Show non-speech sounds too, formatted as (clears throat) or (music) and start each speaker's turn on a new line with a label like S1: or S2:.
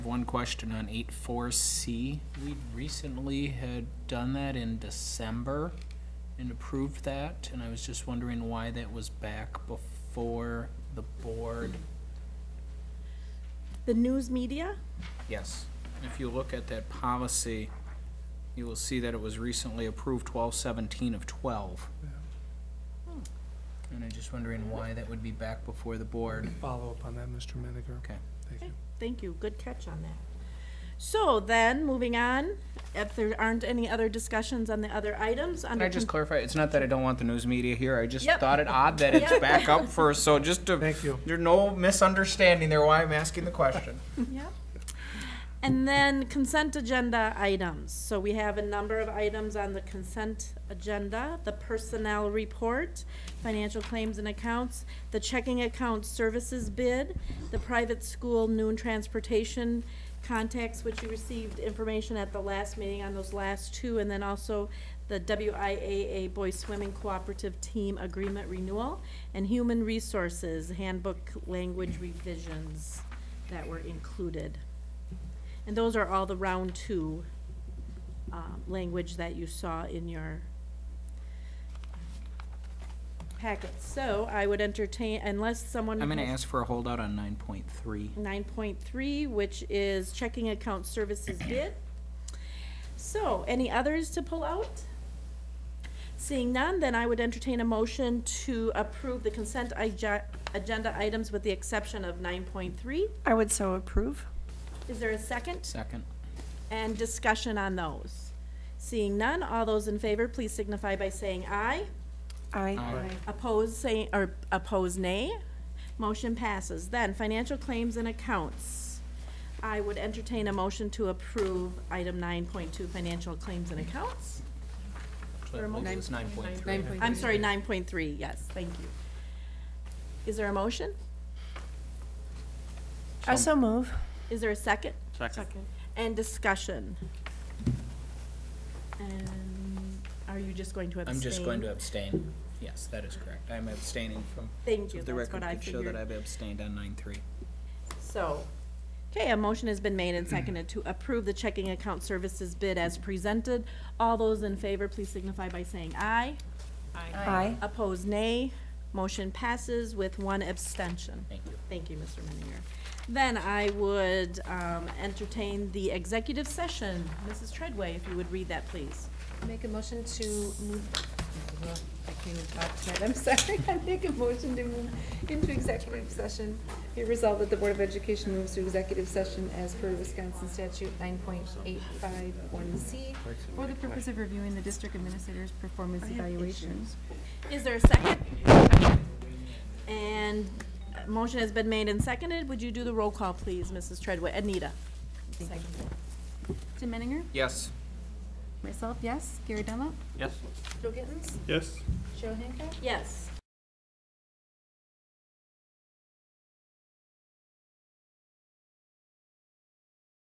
S1: One question on eight four C. We recently had done that in December and approved that, and I was just wondering why that was back before the board.
S2: The news media?
S1: Yes, if you look at that policy, you will see that it was recently approved twelve seventeen of twelve. And I'm just wondering why that would be back before the board.
S3: Follow up on that, Mr. Miniger.
S1: Okay.
S3: Thank you.
S2: Thank you, good catch on that. So then, moving on, if there aren't any other discussions on the other items,
S1: Can
S2: under.
S1: I just
S2: con-
S1: clarify? It's not that I don't want the news media here. I just
S2: Yep.
S1: thought it odd that it's
S2: Yep.
S1: back up first. So just to
S3: Thank you.
S1: there's no misunderstanding there why I'm asking the question.
S2: Yep. And then consent agenda items. So we have a number of items on the consent agenda, the personnel report, financial claims and accounts, the checking account services bid, the private school noon transportation contacts, which you received information at the last meeting on those last two, and then also the WIAA Boys Swimming Cooperative Team Agreement Renewal, and Human Resources Handbook Language Revisions that were included. And those are all the round two um, language that you saw in your packet. So I would entertain, unless someone.
S1: I'm going to
S2: has-
S1: ask for a holdout on 9.3.
S2: 9.3, which is checking account services bid. So, any others to pull out? Seeing none, then I would entertain a motion to approve the consent ige- agenda items with the exception of 9.3.
S4: I would so approve.
S2: Is there a second?
S1: Second.
S2: And discussion on those? Seeing none, all those in favor, please signify by saying aye.
S4: I
S1: Aye.
S2: Oppose, say, or oppose nay. Motion passes. Then, financial claims and accounts. I would entertain a motion to approve item nine point two, financial claims and accounts.
S1: So I
S2: Or a
S1: believe
S2: motion.
S1: it's 9.3.
S2: I'm sorry, nine point three, yes, thank you. Is there a motion?
S4: I so move.
S2: Is there a second? Second. And discussion? And are you just going to abstain?
S1: I'm just going to abstain. Yes, that is correct. I'm abstaining from.
S2: Thank
S1: so
S2: you,
S1: if The
S2: that's
S1: record
S2: what I
S1: could show that
S2: figured.
S1: I've abstained on 9.3.
S2: So, okay, a motion has
S1: (clears throat)
S2: been made and seconded to approve the checking account services bid as presented. All those in favor, please signify by saying aye.
S4: Aye.
S2: Opposed, nay. Motion passes with one abstention.
S1: Thank you.
S2: Thank you, Mr. Menninger. Then I would um, entertain the executive session. Mrs. Treadway, if you would read that, please.
S5: Make a motion to move, well, I can't even talk tonight, I'm sorry. (laughs) I make a motion to move into executive session. Be resolved that the Board of Education moves to executive session as per Wisconsin statute nine point eight five one C
S6: For the purpose of reviewing the district administrator's performance evaluation.
S2: Is there a second? And uh, motion has been made and seconded. Would you do the roll call, please, Mrs. Treadway? Anita?
S6: Jim Menninger?
S1: Yes.
S6: Myself, yes. Gary Dunlap?
S5: Joe Gittens?
S3: Yes.
S5: Cheryl Hancock?
S2: Yes.